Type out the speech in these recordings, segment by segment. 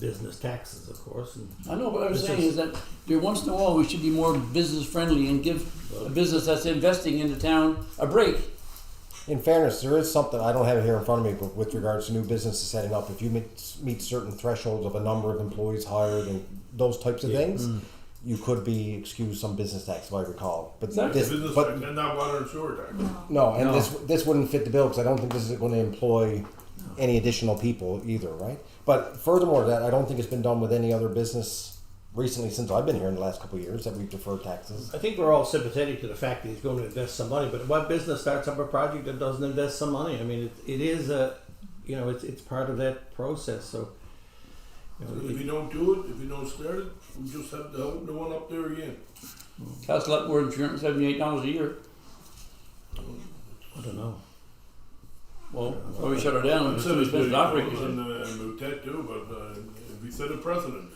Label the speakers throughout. Speaker 1: business taxes, of course, and
Speaker 2: I know, but what I'm
Speaker 1: This
Speaker 2: saying
Speaker 1: is-
Speaker 2: is that there once in a while we should be more business friendly and give a business that's investing in the town a break.
Speaker 3: In fairness, there is something I don't have it here in front of me, but with regards to new businesses setting up, if you meet, meet certain thresholds of a number of employees hired and those types of things, you could be excused some business tax, if I recall. But
Speaker 2: Exactly.
Speaker 3: this,
Speaker 4: Business
Speaker 3: but
Speaker 4: tax and not water and sewer tax.
Speaker 3: no, and
Speaker 2: No.
Speaker 3: this this wouldn't fit the bill because I don't think this is going to employ any additional people either, right? But furthermore, to that I don't think it's been done with any other business recently since I've been here in the last couple of years that we've deferred taxes.
Speaker 1: I think we're all sympathetic to the fact that he's going to invest some money, but what business starts up a project that doesn't invest some money? I mean, it, it is a, you know, it's, it's part of that process. So, you know,
Speaker 4: If
Speaker 1: it-
Speaker 4: you don't do it, if you don't start it, we just have to open the one up there again.
Speaker 2: That's a lot more than three hundred seventy-eight dollars a year.
Speaker 1: I don't know.
Speaker 2: Well, or we shut her down,
Speaker 4: I
Speaker 2: it's
Speaker 4: said
Speaker 2: too
Speaker 4: it's
Speaker 2: expensive
Speaker 4: big,
Speaker 2: to operate.
Speaker 4: and, uh, and we take too, but uh, if we set a precedent,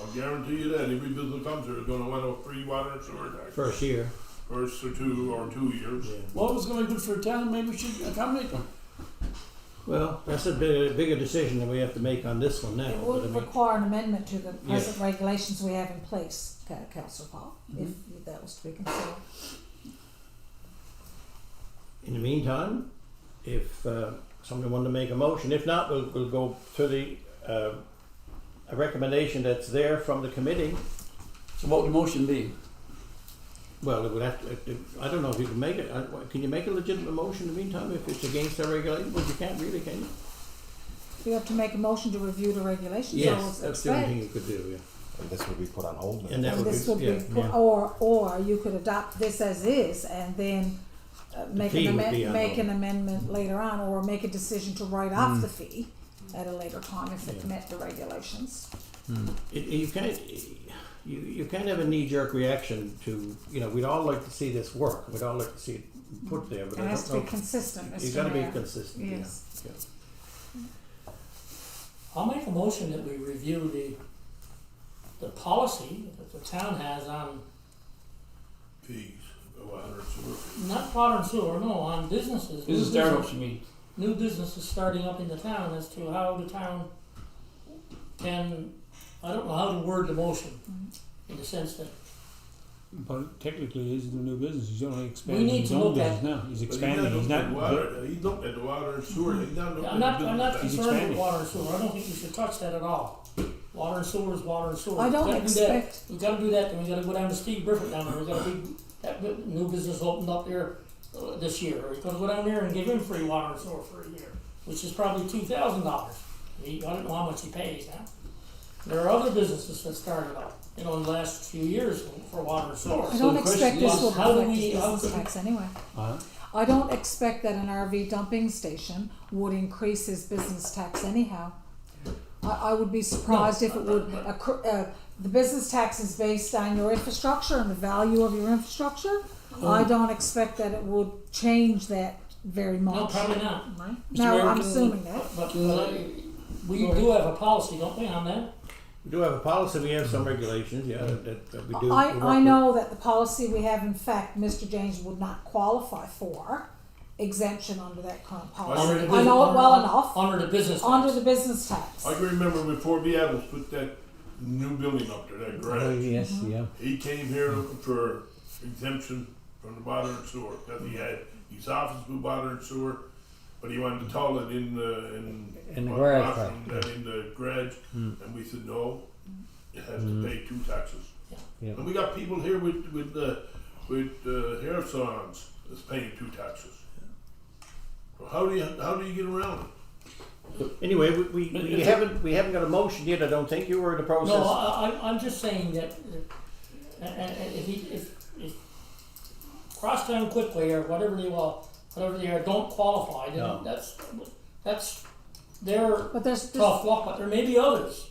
Speaker 4: I'll guarantee you that every business comes here is going to want a free water and sewer tax
Speaker 1: First year.
Speaker 4: first or two or two years.
Speaker 1: Yeah.
Speaker 2: Well, if it's gonna be good for the town, maybe we should accommodate them.
Speaker 1: Well, that's a big, bigger decision that we have to make on this one now.
Speaker 5: It
Speaker 1: But I
Speaker 5: would
Speaker 1: mean,
Speaker 5: require an amendment to the
Speaker 1: Yes.
Speaker 5: present regulations we have in place, Ca- Councillor Paul, if
Speaker 1: Mm-hmm.
Speaker 5: if that was to be considered.
Speaker 1: in the meantime, if uh, somebody wanted to make a motion, if not, we'll, we'll go to the uh, a recommendation that's there from the committee.
Speaker 2: So what would the motion be?
Speaker 1: Well, it would have to, it- it- I don't know if you can make it, I- what- can you make a legitimate motion in the meantime if it's against our regulation? Well, you can't really, can you?
Speaker 5: You have to make a motion to review the regulations, I
Speaker 1: Yes,
Speaker 5: was
Speaker 1: that's the only
Speaker 5: expect.
Speaker 1: thing you could do, yeah.
Speaker 3: And this would be put on hold.
Speaker 1: And that
Speaker 5: And
Speaker 1: would
Speaker 5: this
Speaker 1: be-
Speaker 5: would be,
Speaker 1: yeah,
Speaker 5: put-
Speaker 1: yeah.
Speaker 5: or, or you could adopt this as is and then uh, make
Speaker 1: fee
Speaker 5: an
Speaker 1: would be
Speaker 5: amendment, make
Speaker 1: unknown.
Speaker 5: an amendment
Speaker 1: Mm-hmm.
Speaker 5: later on, or make a decision to write off the fee at a later time if it
Speaker 1: Mm. Yeah.
Speaker 5: met the regulations.
Speaker 1: It, you can't, you, you can't have a knee-jerk reaction to, you know, we'd all like to see this work, we'd all like to see it put there, but
Speaker 5: It
Speaker 1: I
Speaker 5: has
Speaker 1: don't
Speaker 5: to be
Speaker 1: know.
Speaker 5: consistent,
Speaker 1: You
Speaker 5: Mr.
Speaker 1: gotta be
Speaker 5: Mayor.
Speaker 1: consistent, yeah.
Speaker 5: Yes.
Speaker 1: yeah.
Speaker 6: I'll make a motion that we review the, the policy that the town has on,
Speaker 4: Fees, a water and sewer fees.
Speaker 6: not water and sewer, no, on businesses.
Speaker 2: This
Speaker 6: new
Speaker 2: is startups, you mean?
Speaker 6: New businesses starting up in the town as to how the town can, I don't know how to word the motion, in the sense that
Speaker 7: But technically, he's the new business. He's only expanding
Speaker 6: We need
Speaker 7: his
Speaker 6: to
Speaker 7: own
Speaker 6: look at-
Speaker 7: business now. He's
Speaker 4: But he's
Speaker 7: expanding. He's
Speaker 4: looking at
Speaker 7: not.
Speaker 4: water. He looked at the water and sewer. He's not looking
Speaker 6: I'm
Speaker 4: at
Speaker 6: not,
Speaker 4: the
Speaker 6: I'm not
Speaker 4: business tax.
Speaker 6: concerned with
Speaker 7: expanding.
Speaker 6: water and sewer, I don't think you should touch that at all. Water and sewer is water and sewer.
Speaker 5: I
Speaker 6: We
Speaker 5: don't
Speaker 6: gotta do that.
Speaker 5: expect-
Speaker 6: We gotta do that, then we gotta go down to Steve Griffith down there, we got a big, that bu- new business opened up there uh, this year. We're gonna go down there and give him free water and sewer for a year, which is probably two thousand dollars. He, I don't know how much he pays now. There are other businesses that started up, you know, in the last few years for water and sewer.
Speaker 5: I
Speaker 7: So
Speaker 5: don't
Speaker 7: the question
Speaker 5: expect this
Speaker 6: is,
Speaker 5: will
Speaker 6: how do
Speaker 5: affect
Speaker 6: we-
Speaker 5: the
Speaker 6: how
Speaker 5: business
Speaker 6: could-
Speaker 5: tax anyway.
Speaker 7: Uh,
Speaker 5: I don't expect that an RV dumping station would increase his business tax anyhow. I, I would be surprised if it would, accru- uh, the business tax is based on your infrastructure and the value of your infrastructure.
Speaker 6: Oh.
Speaker 5: I don't expect that it would change that very much.
Speaker 6: No, probably not.
Speaker 5: Right?
Speaker 6: Mr.
Speaker 5: No,
Speaker 6: Mayor,
Speaker 5: I'm
Speaker 6: can-
Speaker 5: assuming that.
Speaker 6: But, uh, we do have a policy, don't we, on that?
Speaker 1: We do have a policy, we have some regulations, yeah, that, that we do.
Speaker 5: I,
Speaker 1: we work
Speaker 5: I
Speaker 1: with.
Speaker 5: know that the policy we have, in fact, Mr. James would not qualify for exemption under that current
Speaker 6: Under
Speaker 5: policy.
Speaker 6: the
Speaker 5: I know it
Speaker 6: business-
Speaker 5: well
Speaker 6: under-
Speaker 5: enough,
Speaker 6: Under the business
Speaker 5: under
Speaker 6: tax.
Speaker 5: the business tax.
Speaker 4: I can remember before B. Adams put that new building up there, that
Speaker 1: Oh,
Speaker 4: garage.
Speaker 7: yes, yeah.
Speaker 4: He came here looking for exemption from the water and sewer, because he had his office with water and sewer, but he wanted to tell it in the, in.
Speaker 7: In the
Speaker 4: what,
Speaker 7: garage, Mm.
Speaker 4: bathroom, that In the garage, and we said, no, it has to pay two taxes.
Speaker 6: Yeah.
Speaker 7: Yeah.
Speaker 4: And we got people here with, with, uh, with, uh, hair salons that's paying two taxes. Well, how do you, how do you get around it?
Speaker 1: Anyway, we, we, we haven't, we haven't got a motion yet, I don't think, you were in the process.
Speaker 6: No, I, I, I'm just saying that, uh, uh, uh, if he, if, if Crosstown Quickly or whatever they will, whatever they are, don't qualify,
Speaker 1: No.
Speaker 6: then that's, that's their
Speaker 5: But there's, there's
Speaker 6: tough luck, but there may be others.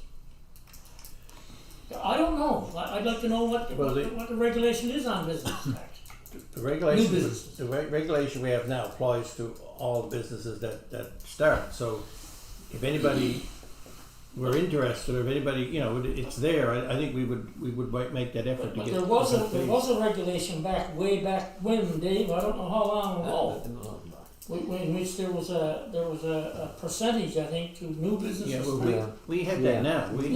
Speaker 6: I don't know, I, I'd like to know what, the-
Speaker 1: Well,
Speaker 6: what, the-
Speaker 1: the-
Speaker 6: what the regulation is on business tax.
Speaker 1: The regulation,
Speaker 6: New businesses.
Speaker 1: the re- regulation we have now applies to all businesses that, that start, so if anybody were interested, or if anybody, you know, it, it's there, I, I think we would, we would wa- make that effort to
Speaker 6: But
Speaker 1: get.
Speaker 6: there was a,
Speaker 1: some
Speaker 6: there
Speaker 1: fees.
Speaker 6: was a regulation back, way back when, Dave, I don't know how long
Speaker 3: uh,
Speaker 6: ago. whi- whi- In which there was a, there was a, a percentage, I think, to new businesses.
Speaker 1: Yeah, well, we, we have that now, we,